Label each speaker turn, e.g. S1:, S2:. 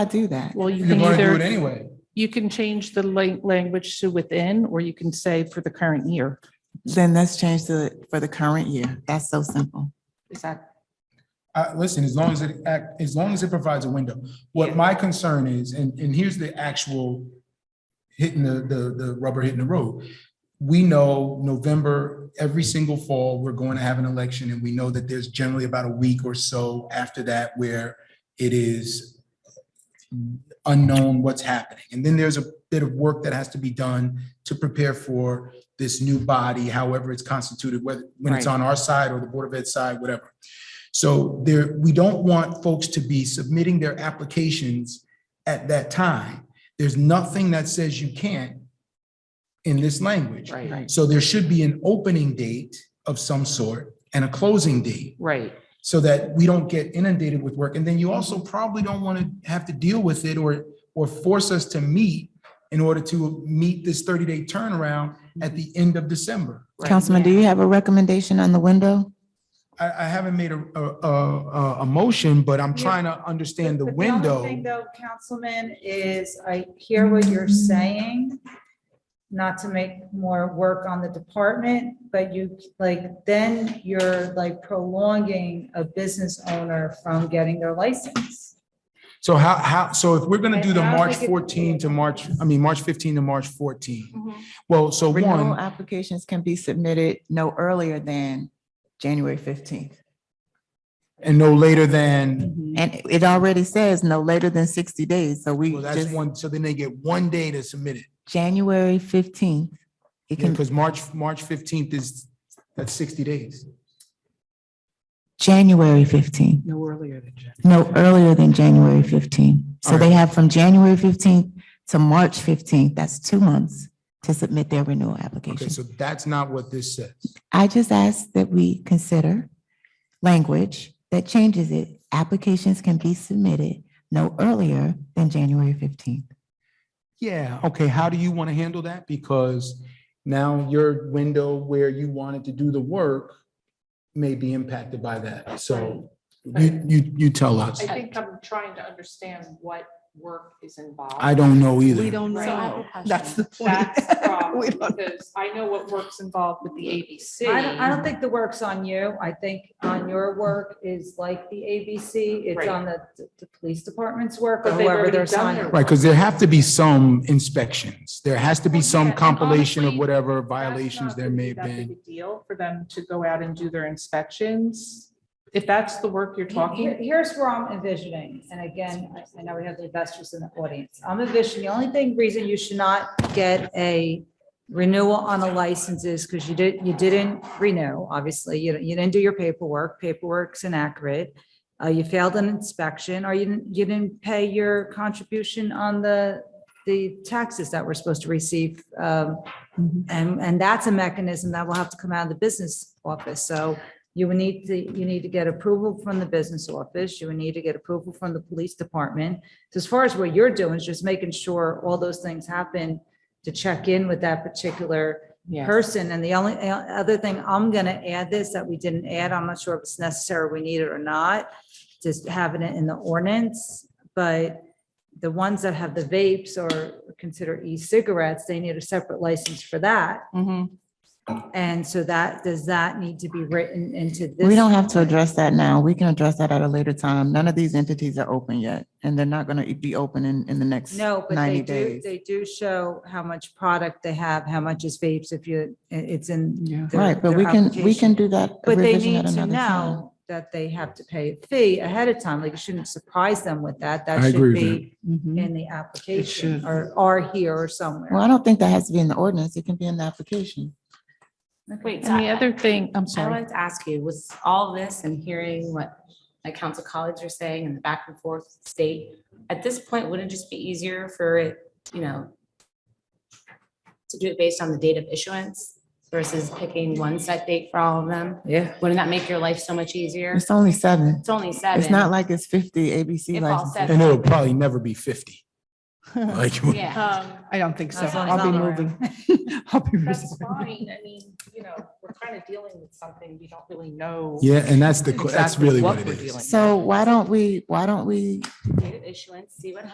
S1: I do that?
S2: Well, you
S3: You're
S2: can
S3: going to do it
S2: either,
S3: anyway.
S2: you can change the la- language to within, or you can say for the current year.
S1: Then let's change the, for the current year. That's so simple.
S2: Is that,
S3: Uh, listen, as long as it act, as long as it provides a window. What my concern is, and, and here's the actual hitting the, the, the rubber hitting the road. We know November, every single fall, we're going to have an election and we know that there's generally about a week or so after that where it is unknown what's happening. And then there's a bit of work that has to be done to prepare for this new body, however it's constituted, whether, when it's
S2: Right.
S3: on our side or the Board of Ed side, whatever. So there, we don't want folks to be submitting their applications at that time. There's nothing that says you can't in this language.
S2: right,
S3: So there should be an opening date of some sort and a closing date
S2: right,
S3: so that we don't get inundated with work. And then you also probably don't want to have to deal with it or, or force us to meet in order to meet this 30-day turnaround at the end of December.
S2: Right.
S1: Councilman, do you have a recommendation on the window?
S3: I, I haven't made a, a, a, a- a motion, but I'm
S4: Yeah.
S3: trying to understand the
S4: But only
S3: window.
S4: Thing though, Councilman, is I hear what you're saying, not to make more work on the department, but you, like, then you're like prolonging a business owner from getting their license.
S3: So how, how, so if we're gonna do the
S4: I- I don't
S3: March
S4: think
S3: 14
S4: it-
S3: to March, I mean, March 15 to March 14. Well, so
S1: Renewal
S3: one,
S1: applications can be submitted no earlier than January fifteenth.
S3: and no later than,
S1: And it already says no later than sixty days, so we
S3: well, that's
S1: just,
S3: one, so then they get one day to submit it.
S1: January fifteenth. It can,
S3: Because March, March 15th is, that's 60 days.
S1: January fifteenth,
S2: no earlier than January.
S1: no earlier than January fifteenth. So
S3: All right.
S1: they have from January fifteenth to March fifteenth, that's two months to submit their renewal
S3: Okay,
S1: application.
S3: so that's not what this says.
S1: I just ask that we consider language that changes it. Applications can be submitted no earlier than January fifteenth.
S3: Yeah, okay, how do you want to handle that? Because now your window where you wanted to do the work may be impacted by that. So you, you, you tell us.
S2: I think I'm trying to understand what work is involved.
S3: I don't know either.
S5: We don't
S2: Right.
S5: know. That's the point.
S2: That's the
S5: We
S2: problem,
S5: don't-
S2: because I know what work's involved with the ABC.
S4: I don't, I don't think the work's on you. I think on your work is like the ABC. It's
S2: Right.
S4: on the, the police department's work or
S2: But they've
S4: whoever
S2: already
S4: they're
S2: done
S4: signing.
S2: their
S3: Right, because there have to be some inspections. There has to be
S2: Well, yeah,
S3: some
S2: and
S3: compilation of
S2: honestly,
S3: whatever
S2: That's
S3: violations
S2: not
S3: there
S2: gonna
S3: may
S2: be
S3: have
S2: that big
S3: been.
S2: a Deal for them to go out and do their inspections. If that's the work you're
S4: Here-
S2: talking,
S4: Here's where I'm envisioning, and again, I- I know we have the investors in the audience. I'm envisioning, the only thing, reason you should not get a renewal on a license is because you did, you didn't renew, obviously, you, you didn't do your paperwork, paperwork's inaccurate. Uh, you failed an inspection, or you didn't, you didn't pay your contribution on the, the taxes that we're supposed to receive. Um,
S2: Mm-hmm.
S4: and, and that's a mechanism that will have to come out of the business office, so you would need to, you need to get approval from the business office, you would need to get approval from the police department. So As far as what you're doing is just making sure all those things happen to check in with that particular
S2: yeah,
S4: person. And the only uh, other thing I'm gonna add this that we didn't add, I'm not sure if it's necessary, we need it or not, just having it in the ordinance, but the ones that have the vapes or consider e-cigarettes, they need a separate license for that.
S2: Mm-hmm.
S4: And so that, does that need to be written into this?
S1: We don't have to address that now. We can address that at a later time. None of these entities are open yet, and they're not gonna be open in, in the next
S4: No, but they
S1: ninety
S4: do,
S1: days.
S4: they do show how much product they have, how much is vapes, if you, i- it's in.
S5: Yeah.
S4: their-
S1: Right, but
S4: their
S1: we can, we can
S4: application.
S1: do that
S4: But they
S1: revision
S4: need
S1: at
S4: to
S1: another time.
S4: know that they have to pay a fee ahead of time, like you shouldn't surprise them with that,
S3: I
S4: that
S3: agree
S4: should
S3: with
S4: be
S5: Mhm.
S4: in the application
S5: should.
S4: or, or here
S1: Mm-hmm. Well,
S4: or
S1: I
S4: somewhere.
S1: don't think that has to be in the ordinance. It can be in the application.
S6: Wait, so
S2: And the
S6: I
S2: other thing, I'm
S6: I
S2: sorry,
S6: wanted to ask you, was all this and hearing what like council colleagues are saying and the back and forth state, at this point, wouldn't it just be easier for it, you know, to do it based on the date of issuance versus picking one set date for all of them?
S4: Yeah.
S6: Wouldn't that make your life so much easier?
S1: It's only seven.
S6: It's only seven.
S1: It's not like it's fifty ABC
S6: If all
S1: licenses.
S6: seven-
S3: And it'll probably never be 50. Like,
S6: Yeah.
S5: I don't think so.
S4: As long as
S5: I'll be
S4: I'm aware.
S5: moving. I'll be
S2: Um, that's
S5: resigning.
S2: fine. I mean, you know, we're kind of dealing with something we don't really know.
S3: yeah, and that's the, that's
S2: exactly
S3: really what it
S2: we're
S3: is.
S2: dealing with.
S1: So why don't we, why don't we
S6: Date of issuance, see what